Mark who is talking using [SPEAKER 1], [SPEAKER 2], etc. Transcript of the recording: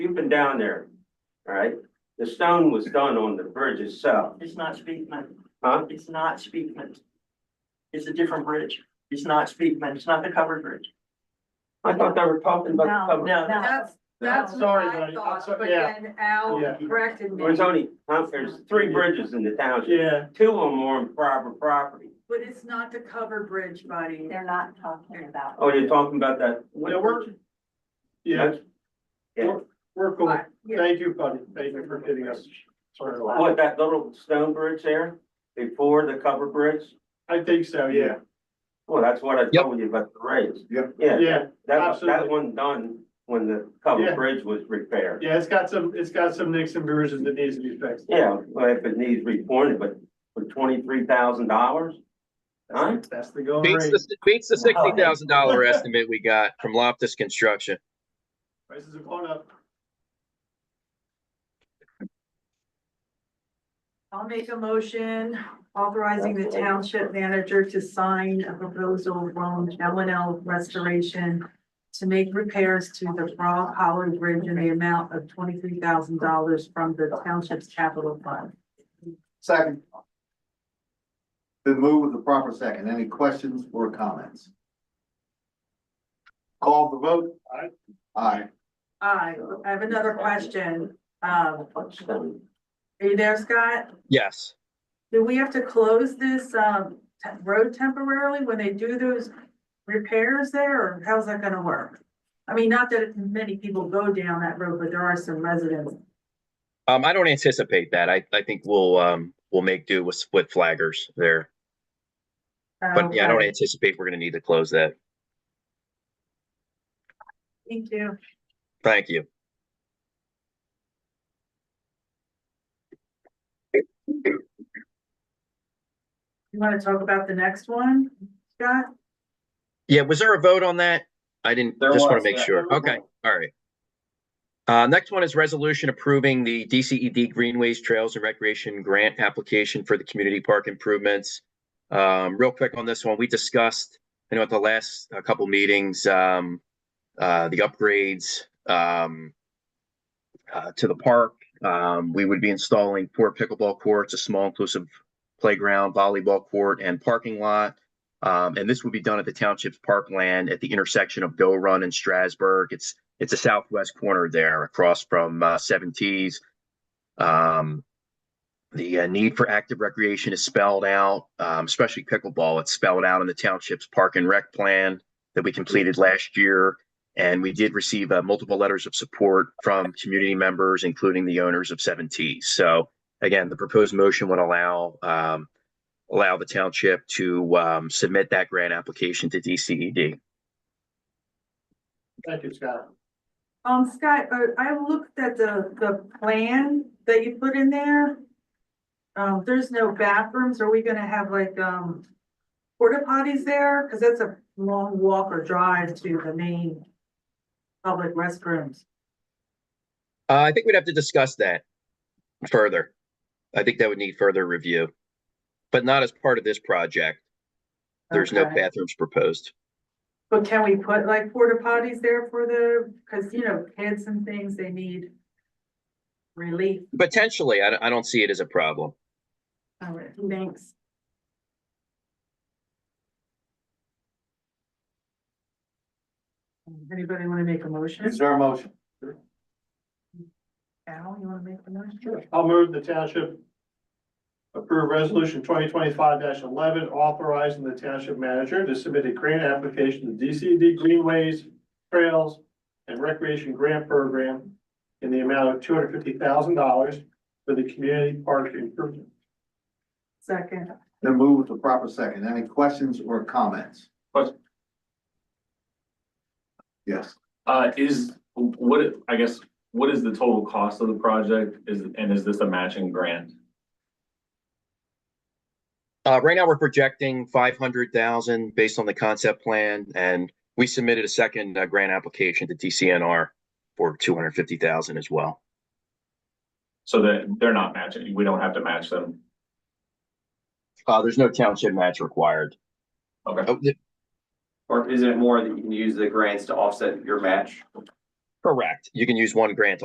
[SPEAKER 1] been down there, all right? The stone was done on the bridge itself,
[SPEAKER 2] It's not Speakman.
[SPEAKER 1] Huh?
[SPEAKER 2] It's not Speakman. It's a different bridge. It's not Speakman. It's not the covered bridge.
[SPEAKER 1] I thought they were talking about the cover.
[SPEAKER 2] No,
[SPEAKER 3] That's, that's what
[SPEAKER 4] Sorry,
[SPEAKER 3] I
[SPEAKER 4] buddy. I'm
[SPEAKER 3] thought,
[SPEAKER 4] so-
[SPEAKER 3] but
[SPEAKER 4] yeah.
[SPEAKER 3] then Al
[SPEAKER 4] Yeah.
[SPEAKER 3] corrected me.
[SPEAKER 1] There's only, huh, there's three bridges in the township,
[SPEAKER 4] Yeah,
[SPEAKER 1] two or more on private property.
[SPEAKER 3] But it's not the covered bridge, buddy.
[SPEAKER 5] They're not talking about.
[SPEAKER 1] Oh, you're talking about that?
[SPEAKER 4] yeah, we're, yeah,
[SPEAKER 1] Yeah.
[SPEAKER 4] we're cool.
[SPEAKER 3] Right, yeah.
[SPEAKER 4] Thank you, buddy. Thank you for getting us. started.
[SPEAKER 1] What, that little stone bridge there before the cover bridge?
[SPEAKER 4] I think so, yeah,
[SPEAKER 1] Well, that's what I
[SPEAKER 6] Yep.
[SPEAKER 1] told you about the raise.
[SPEAKER 7] Yep.
[SPEAKER 1] Yeah,
[SPEAKER 4] yeah,
[SPEAKER 1] that, was- that
[SPEAKER 4] absolutely.
[SPEAKER 1] one done when the
[SPEAKER 4] Yeah.
[SPEAKER 1] cover bridge was repaired.
[SPEAKER 4] yeah, it's got some, it's got some nicks and bruises that needs to be fixed.
[SPEAKER 1] Yeah, well, if it needs reported, but for twenty-three thousand dollars? Huh?
[SPEAKER 4] That's the going
[SPEAKER 6] Beats
[SPEAKER 4] rate.
[SPEAKER 6] the, beats the
[SPEAKER 2] Wow.
[SPEAKER 6] sixty thousand dollar estimate we got from Loftus Construction.
[SPEAKER 4] Prices have gone up.
[SPEAKER 3] I'll make a motion authorizing the township manager to sign a proposal from L and L Restoration to make repairs to the Frog Hollow Bridge in the amount of twenty-three thousand dollars from the township's capital fund.
[SPEAKER 7] Second. Been moved with the proper second. Any questions or comments? Call the vote.
[SPEAKER 4] Aye.
[SPEAKER 7] Aye.
[SPEAKER 3] I, I have another question. Um,
[SPEAKER 1] Stone.
[SPEAKER 3] are you there, Scott?
[SPEAKER 6] Yes.
[SPEAKER 3] Do we have to close this, um, te- road temporarily when they do those repairs there, or how's that gonna work? I mean, not that many people go down that road, but there are some residents.
[SPEAKER 6] Um, I don't anticipate that. I, I think we'll, um, we'll make do with split flaggers there. But yeah, I don't
[SPEAKER 3] Okay,
[SPEAKER 6] anticipate we're gonna need to close that.
[SPEAKER 3] Thank you.
[SPEAKER 6] Thank you.
[SPEAKER 3] You wanna talk about the next one, Scott?
[SPEAKER 6] Yeah, was there a vote on that? I didn't,
[SPEAKER 1] There
[SPEAKER 6] just want
[SPEAKER 1] was,
[SPEAKER 6] to make
[SPEAKER 1] yeah.
[SPEAKER 6] sure. Okay, all right. Uh, next one is resolution approving the DCED Greenways Trails and Recreation Grant application for the community park improvements. Um, real quick on this one, we discussed, you know, at the last uh, couple meetings, um, uh, the upgrades, um, uh, to the park. Um, we would be installing four pickleball courts, a small inclusive playground, volleyball court and parking lot. Um, and this would be done at the township's parkland at the intersection of Go Run and Strasburg. It's, it's a southwest corner there across from, uh, Seven Tees. Um, the uh, need for active recreation is spelled out, um, especially pickleball. It's spelled out in the township's park and rec plan that we completed last year. And we did receive, uh, multiple letters of support from community members, including the owners of Seven Tees. So again, the proposed motion would allow, um, allow the township to um, submit that grant application to E DCED.
[SPEAKER 4] Thank you, Scott.
[SPEAKER 3] Um, Scott, uh, I looked at the, the plan that you put in there. Um, there's no bathrooms, are we gonna have like, um, porta potties there? Cause that's a long walk or drive to the main public restrooms.
[SPEAKER 6] Uh, I think we'd have to discuss that further. I think that would need further review, but not as part of this project. There's no
[SPEAKER 3] Okay.
[SPEAKER 6] bathrooms proposed.
[SPEAKER 3] But can we put like porta potties there for the, cause you know, kids and things, they need relief.
[SPEAKER 6] Potentially, I, don't- I don't see it as a problem.
[SPEAKER 3] All right, thanks. Anybody wanna make a motion?
[SPEAKER 7] Is there a motion?
[SPEAKER 3] Al, you wanna make the motion?
[SPEAKER 4] I'll move the township approve resolution twenty twenty-five eleven, authorizing the township manager to submit a grant application to DCD Greenways, Trails, and Recreation Grant Program in the amount of two hundred fifty thousand dollars for the community park improvement.
[SPEAKER 3] Second,
[SPEAKER 7] Been moved with the proper second. Any questions or comments?
[SPEAKER 8] Question.
[SPEAKER 7] Yes,
[SPEAKER 8] Uh, is, what, I guess, what is the total cost of the project? Is, and is this a matching grant?
[SPEAKER 6] Uh, right now, we're projecting five hundred thousand based on the concept plan, and we submitted a second uh, grant application to DCNR for two hundred fifty thousand as well.
[SPEAKER 8] So that they're not matching, we don't have to match them.
[SPEAKER 6] Uh, there's no township match required.
[SPEAKER 8] Okay.
[SPEAKER 6] Oh, th-
[SPEAKER 9] Or is it more that you can use the grants to offset your match?
[SPEAKER 6] Correct. You can use one grant